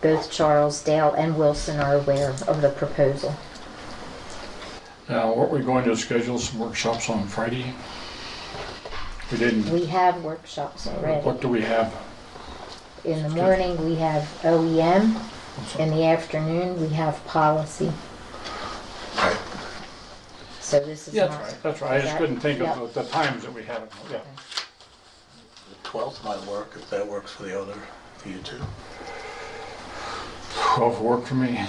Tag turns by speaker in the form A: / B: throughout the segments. A: Both Charles, Dale, and Wilson are aware of the proposal.
B: Now, weren't we going to schedule some workshops on Friday? We didn't.
A: We have workshops already.
B: What do we have?
A: In the morning, we have OEM. In the afternoon, we have policy. So this is
B: Yeah, that's
A: not,
B: right, that's right. I just couldn't think
A: Yeah.
B: of the the times that we have. Yeah.
C: The 12th might work if that works for the other, for you two.
B: 12 work for me.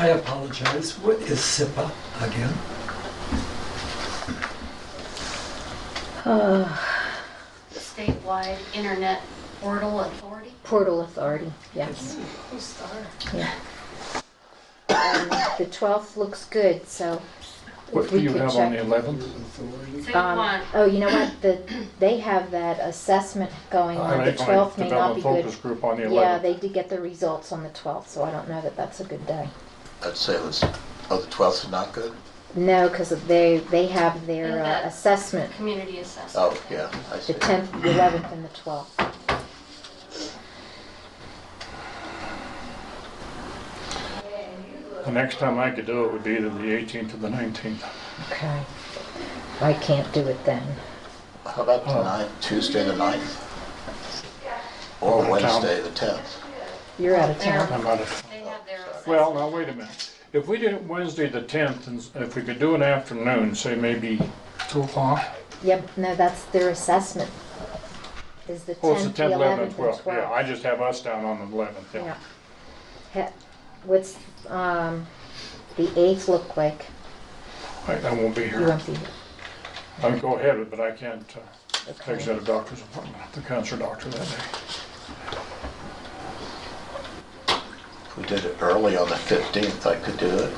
D: I apologize. What is SIPA again?
E: the statewide internet portal authority.
A: Portal Authority, yes. Yeah. Um, The 12th looks good, so
B: What
A: if
B: do
A: we
B: you
A: could
B: have on the
A: check.
B: 11th?
E: So you
A: Um,
E: want,
A: oh, you know what, the, they have that assessment going
B: I
A: on, the
B: think I
A: 12th may not
B: develop
A: be
B: a
A: good.
B: focus group on the
A: Yeah,
B: 11th.
A: they did get the results on the 12th, so I don't know that that's a good day.
C: I'd say it was, oh, the 12th is not good?
A: No, because they, they have their
E: And
A: uh,
E: that-
A: assessment,
E: community assessment.
C: Oh, yeah, I see.
A: the 10th, the 11th, and the 12th.
B: The next time I could do it would be either the 18th or the 19th.
A: Okay. I can't do it then.
C: How about
D: Oh.
C: the ninth, Tuesday the 9th?
B: Oh,
C: Or
B: Tom.
C: Wednesday the 10th?
A: You're out of
E: They're-
A: town.
B: I'm out of,
E: They have their assessment.
B: well, now wait a minute. If we did it Wednesday, the 10th, and s- if we could do an afternoon, say maybe 2 o'clock?
A: Yep, no, that's their assessment. Is the
B: Well, it's the
A: 10th, the
B: 10th,
A: 11th,
B: 11th,
A: and
B: and 12th. Yeah,
A: 12th.
B: I just have us down on the 11th, yeah.
A: Yeah. Ha- What's, um, the 8th look like?
B: I I won't be
A: You
B: here.
A: won't be,
B: I'll go ahead, but I can't uh,
A: okay.
B: exit a doctor's appointment, the cancer doctor that day.
C: If we did it early on the 15th, I could do it.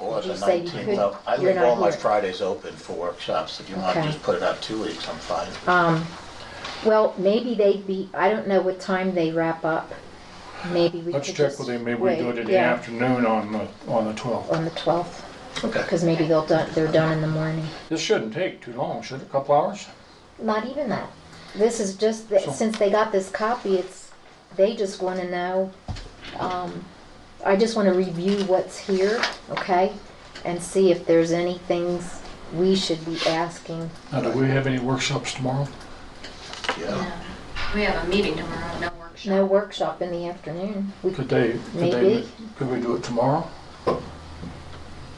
C: Or
A: Did
C: the
A: you say you
C: 19th.
A: could?
C: I'll- I
A: You're
C: leave all
A: not
C: my
A: here.
C: Fridays open for workshops. If you want to
A: Okay. Uh,
C: just put it out two weeks, I'm fine.
A: Well, maybe they'd be, I don't know what time they wrap up. Maybe we could
B: Let's
A: just.
B: check with him, maybe we do
A: wait,
B: it in the
A: yeah,
B: afternoon on the, on the 12th.
A: On the 12th,
C: Okay.
A: because maybe they'll, done- they're done in the morning.
B: This shouldn't take too long, should it, a couple hours?
A: Not even that. This is just, that
B: So-
A: since they got this copy, it's, they just want to know, um, I just want to review what's here, okay? And see if there's any things we should be asking.
B: Now, do we have any workshops tomorrow?
C: Yeah.
E: No. We have a meeting tomorrow, no workshop.
A: No workshop in the afternoon. We
B: Could they, could they,
A: Maybe.
B: could we do it tomorrow? Or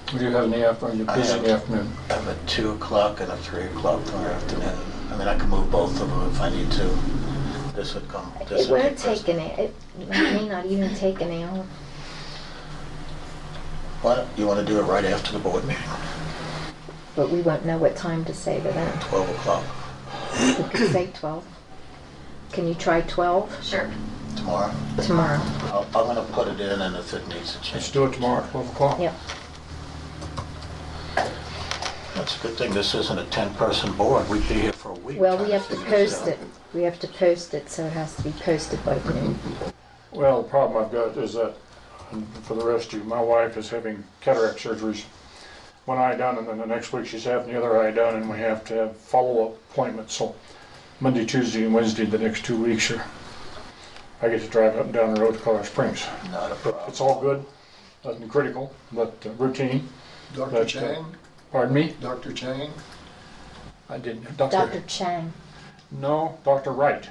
B: do you have any after, you're busy in the afternoon?
C: I have a 2 o'clock and a 3 o'clock tomorrow afternoon. I mean, I can move both of them if I need to. This would come, this
A: It
C: would be
A: won't
C: first.
A: take an, it may not even take an hour.
C: What, you want to do it right after the board meeting,
A: But we won't know what time to say to them.
C: 12 o'clock
A: We could say 12. Can you try 12
E: Sure.
C: tomorrow?
A: tomorrow?
C: I'll- I'm going to put it in and if it needs to
B: Let's
C: change.
B: do it tomorrow at 12 o'clock.
A: Yep.
C: That's a good thing, this isn't a 10-person board, we'd be here for a week.
A: Well,
C: trying
A: we have to
C: figure this
A: post
C: out.
A: it. We have to post it, so it has to be posted by noon.
B: Well, the problem I've got is that, and for the rest of you, my wife is having cataract surgeries. One eye done, and then the next week she's having the other eye done, and we have to have follow-up appointments, so Monday, Tuesday, and Wednesday, the next two weeks are, I get to drive up and down the road to Colorado Springs.
C: Not a problem.
B: It's all good, nothing critical, but uh, routine,
F: Dr.
B: But, uh,
F: Chang,
B: pardon me,
F: Dr. Chang,
B: I didn't,
A: Dr.
B: Dr.,
A: Chang.
B: no, Dr. Wright.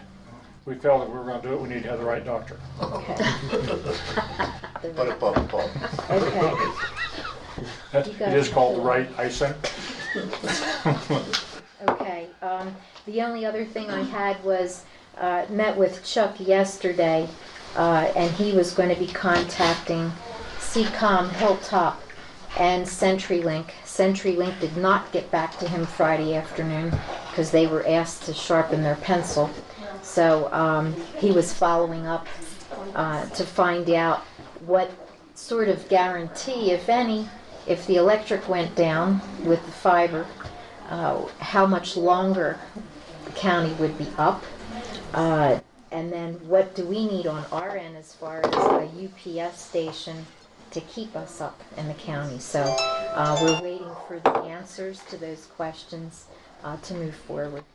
B: We felt that we were gonna do it, we need to have the right doctor.
A: Okay. The
C: Put
A: right-
C: it above the board.
A: Okay.
B: That-
A: You
B: It
A: guys
B: is
A: have
B: called
A: to-
B: the Wright Eye Center.
A: Okay, um, the only other thing I had was, uh, met with Chuck yesterday, uh, and he was gonna be contacting CCOM Hilltop and CenturyLink. CenturyLink did not get back to him Friday afternoon, because they were asked to sharpen their pencil. So, um, he was following up, uh, to find out what sort of guarantee, if any, if the electric went down with the fiber, uh, how much longer the county would be up. uh, And then what do we need on our end as far as a UPS station to keep us up in the county? So uh, we're waiting for the answers to those questions. uh, to move forward.